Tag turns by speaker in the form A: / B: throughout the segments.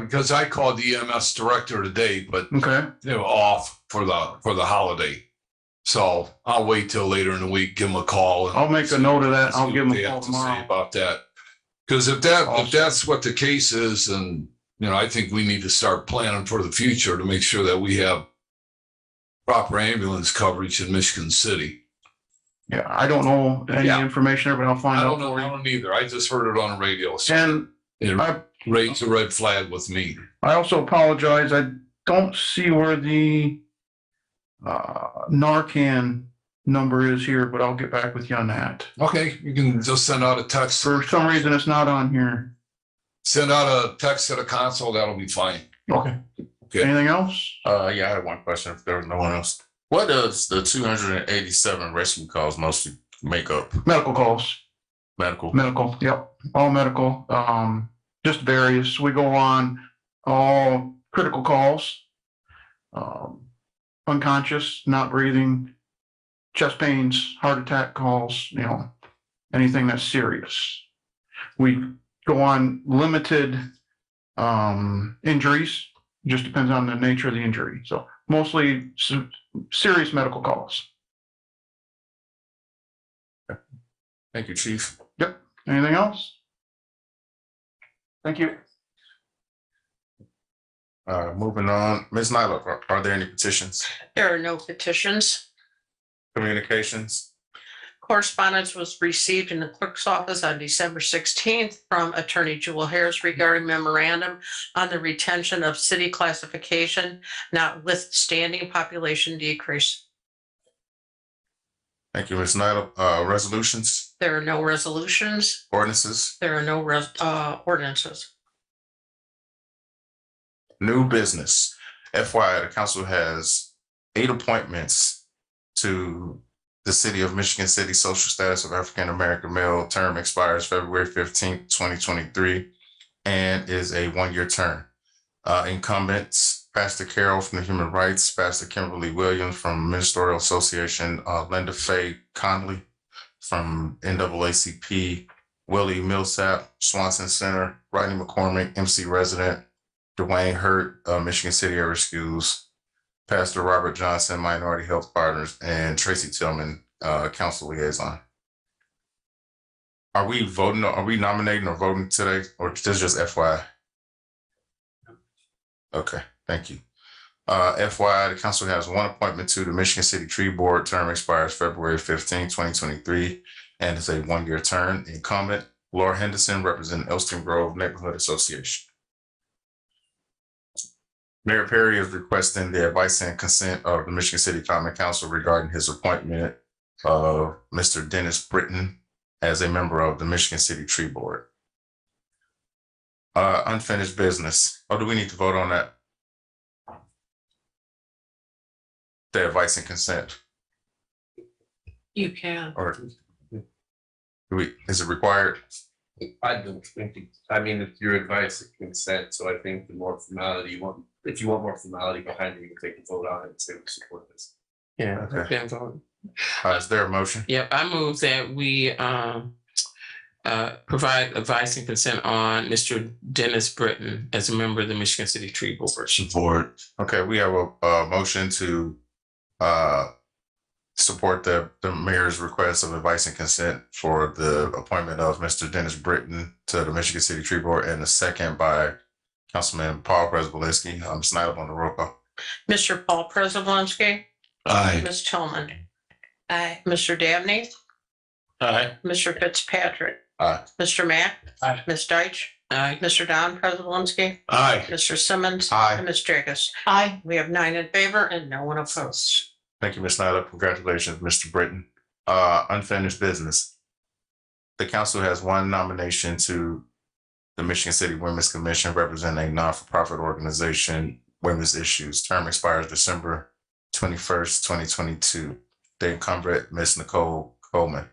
A: Because I called the EMS director today, but
B: Okay,
A: they were off for the, for the holiday. So I'll wait till later in the week, give them a call. and
B: I'll make a note of that.
A: see
B: I'll give
A: what
B: them
A: they
B: a
A: have
B: call
A: to say
B: tomorrow.
A: About that. Because if that, if
B: Awesome.
A: that's what the case is, and, you know, I think we need to start planning for the future to make sure that we have proper ambulance coverage in Michigan City.
B: Yeah, I don't know any
A: Yeah.
B: information there, but I'll find
A: I don't
B: out.
A: know, I don't either. I just heard it on the radio. so
B: And
A: It
B: I,
A: raised a red flag with me.
B: I also apologize. I don't see where the uh, Narcan number is here, but I'll get back with you on that.
A: Okay, you can just send out a text,
B: For some reason, it's not on here.
A: send out a text to the console, that'll be fine.
B: Okay.
A: Okay.
B: Anything else?
C: Uh, yeah, I had one question if there was no one else. What does the two hundred and eighty-seven rescue calls mostly make up?
B: Medical calls.
C: Medical?
B: Medical, yep, all medical, um, just various, we go on all critical calls. Um, unconscious, not breathing, chest pains, heart attack calls, you know, anything that's serious. We go on limited, um, injuries, just depends on the nature of the injury, so mostly se- serious medical calls.
C: Thank you, chief.
B: Anything else? Thank you.
C: Uh, moving on, Ms. Nyla, are, are there any petitions,
D: There are no petitions.
C: communications?
D: Correspondence was received in the clerk's office on December sixteenth from Attorney Jewel Harris regarding memorandum on the retention of city classification notwithstanding population decrease.
C: Thank you, Ms. Nyla. Uh, resolutions,
D: There are no resolutions.
C: ordinances,
D: There are no res- uh, ordinances.
C: new business. FYI, the council has eight appointments to the City of Michigan City Social Status of African American Male term expires February fifteenth, twenty twenty-three and is a one-year term. Uh, incumbents, Pastor Carol from the Human Rights, Pastor Kimberly Williams from Ministerial Association, uh, Linda Faye Conley from NAACP, Willie Millsap, Swanson Center, Rodney McCormick, MC resident, Dwayne Hurt, uh, Michigan City Area Schools, Pastor Robert Johnson, Minority Health Partners, and Tracy Tillman, uh, Council Liaison. Are we voting, are we nominating or voting today, or just just FYI? Okay, thank you. Uh, FYI, the council has one appointment to the Michigan City Tree Board. Term expires February fifteenth, twenty twenty-three, and is a one-year term. Incumbent Laura Henderson, representing Elston Grove Neighborhood Association. Mayor Perry is requesting the advice and consent of the Michigan City Common Council regarding his appointment of Mr. Dennis Britton as a member of the Michigan City Tree Board. Uh, unfinished business. Oh, do we need to vote on that? The advice and consent,
D: You can.
C: or do we, is it required?
E: I don't think, it- I mean, it's your advice and consent, so I think the more formality you want, if you want more formality behind it, you can take a vote on it and say we support this.
F: Yeah,
C: Okay.
F: depends on,
C: Uh, is there a motion?
F: yep, I move that we um uh provide advice and consent on Mr. Dennis Britton as a member of the Michigan City Tree Board.
A: Support.
C: Okay, we have a, a motion to, uh, support the, the mayor's request of advice and consent for the appointment of Mr. Dennis Britton to the Michigan City Tree Board and a second by Councilman Paul Prespolinski. I'm Snyder on the roll call.
D: Mr. Paul Preselinski,
A: Aye.
D: Ms. Tillman. Aye. Mr. Dabney,
F: Aye.
D: Mr. Fitzpatrick.
C: Aye.
D: Mr. Mack.
F: Aye.
D: Ms. Deitch,
F: Aye.
D: Mr. Don Prespolinski.
A: Aye.
D: Mr. Simmons.
C: Aye.
D: And Ms. Jacobs. Aye. We have nine in favor and no one opposed.
C: Thank you, Ms. Snyder. Congratulations, Mr. Britton. Uh, unfinished business. The council has one nomination to the Michigan City Women's Commission representing a non-for-profit organization, Women's Issues. Term expires December twenty-first, twenty twenty-two. The incumbent, Ms. Nicole Coleman.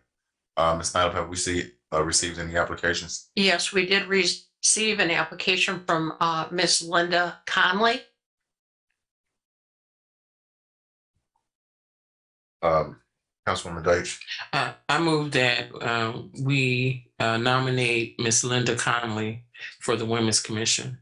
C: Uh, Ms. Snyder, have we see, uh, received any applications?
D: Yes, we did receive an application from uh, Ms. Linda Conley.
C: Um, Councilwoman Deitch,
F: Uh, I move that uh, um we uh nominate Miss Linda Conley for the Women's Commission.